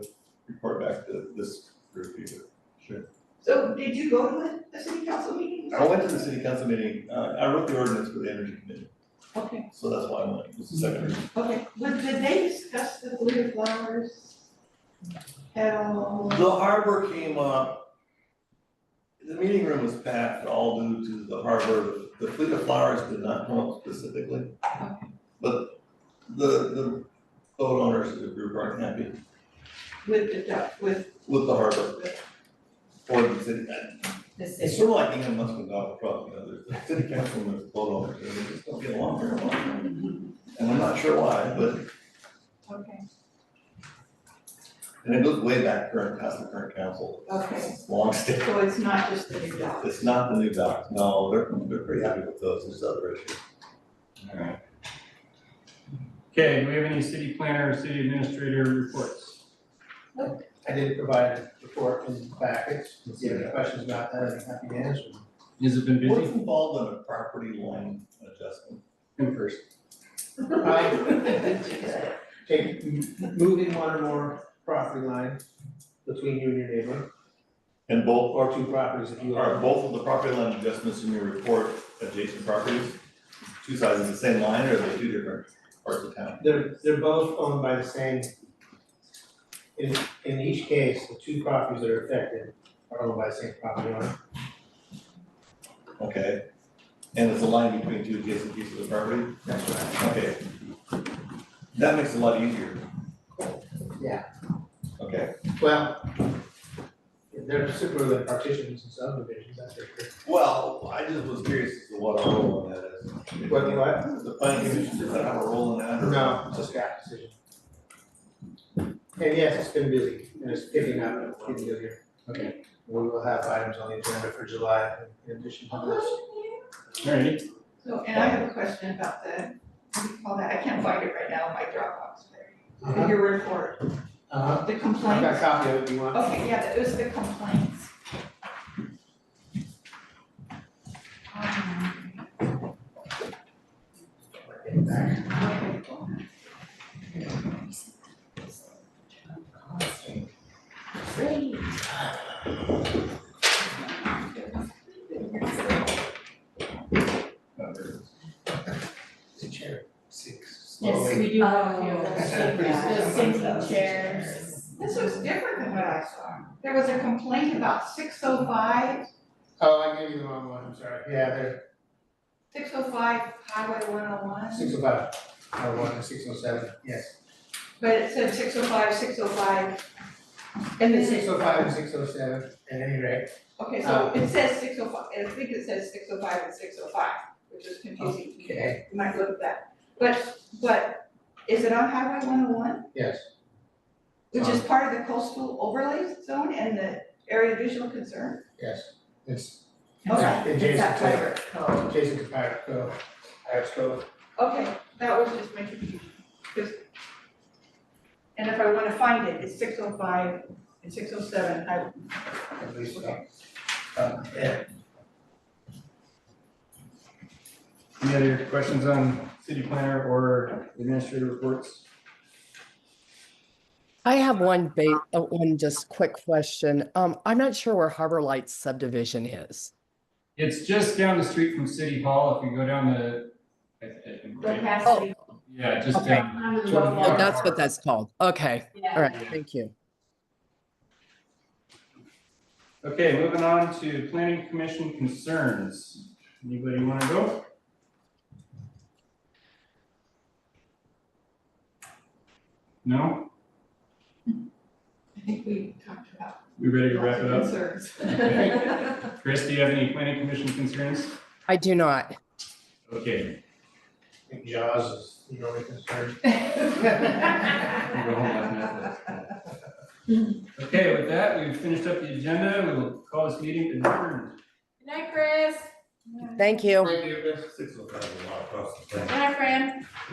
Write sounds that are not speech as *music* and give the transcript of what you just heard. back to this group here. So did you go to the, the city council meeting? I went to the city council meeting, uh, I wrote the ordinance for the energy committee, Okay, so that's why I went, it was the second. reading. okay, but did they discuss the blue flowers at all? The harbor came up. The meeting room was packed all due to the harbor, the fleet of flowers did not come up specifically. But the, the boat owners of the group aren't happy With the, duck- with, with the harbor. Or the city, it's sort of like England must have gone across, you know, there's the city council and there's boat owners, and they just don't get along very well. And I'm not sure why, but, okay, and it goes way back current council, current council, okay, long standing. so it's not just the new dog. It's not the new docs, no, they're, they're pretty happy with those, there's other issues. Alright. Okay, do we have any city planner or city administrator reports? I did provide a report in the packets, if you have any questions about that, I'd be happy to answer them. Has it been What's busy? involved in a property line adjustment? Him first. I take, moving one or more property lines between you and your neighbor, And both, or two properties if you are are. both of the property line adjustments in your report adjacent properties? Two sides of the same line, or are they two different parts of town? They're, they're both owned by the same. In, in each case, the two properties that are affected are owned by the same property owner. Okay. And it's a line between two adjacent pieces of property? That's right. Okay. That makes it a lot easier. Yeah. Okay. Well, they're simpler than partitions and subdivisions, that's for sure. Well, I just was curious as to what our role in that is. What, what? The planning commission doesn't have a role in that? or- No, it's a staff decision. And yes, it's been busy, and it's picking up, it's busy here. Okay. We will have items on the agenda for July in addition to this. Alright, So, and I have a question about the, what do you call that? I can't find it right now in my Dropbox. but Your report, Uh-huh. the I've got a complaints. copy of it if you want. Okay, yeah, it was the complaints. Um, Okay. No, there is. Six. Yes, we do have a few of Oh. those the sinking chairs. This looks different than what I saw. There was a complaint about 605, 605 Oh, I gave you the wrong one, I'm sorry. Yeah, they're oh Highway one oh one, six oh five, oh one and six oh seven, yes. but it oh said 605, 605. And then six oh five and six oh seven, at any rate. oh- Okay, Uh. so it says six oh five, I think it says six oh five and six oh five, which is confusing to me. Okay. You might look at that. But, but is it on Highway one oh one, Yes, which Uh. is part of the coastal overlay zone and the area of visual concern? yes. It's Okay, It's it's that adjacent flavor. Jason Kapara, so I have to. Okay, that was just my confusion, 'cause- And if I wanna find it, it's six oh five and six oh seven, I, at least, uh, uh, yeah. any other questions on city planner or administrator reports? I have one ba- uh, one just quick question. Um, I'm not sure where Harbor Lights subdivision is. It's just down the street from City Hall, if you go down the, I- I- I'm The right- passing. yeah, just Okay. down. Oh, that's what that's called. Okay, all right, thank you. Okay, moving on to planning commission concerns. Anybody wanna go? No? I think we talked about We ready to lots wrap of it up? concerns. Chris, do you have any planning commission concerns? I do not. Okay, I think Jaws is the only concern. I'll *laughs* go home laughing at this. Okay, with that, we've finished up the agenda. We will call this meeting adjourned. Good night, Chris. Thank you. Thank you, Chris. Six of them, a lot across the town. Good night, Fran.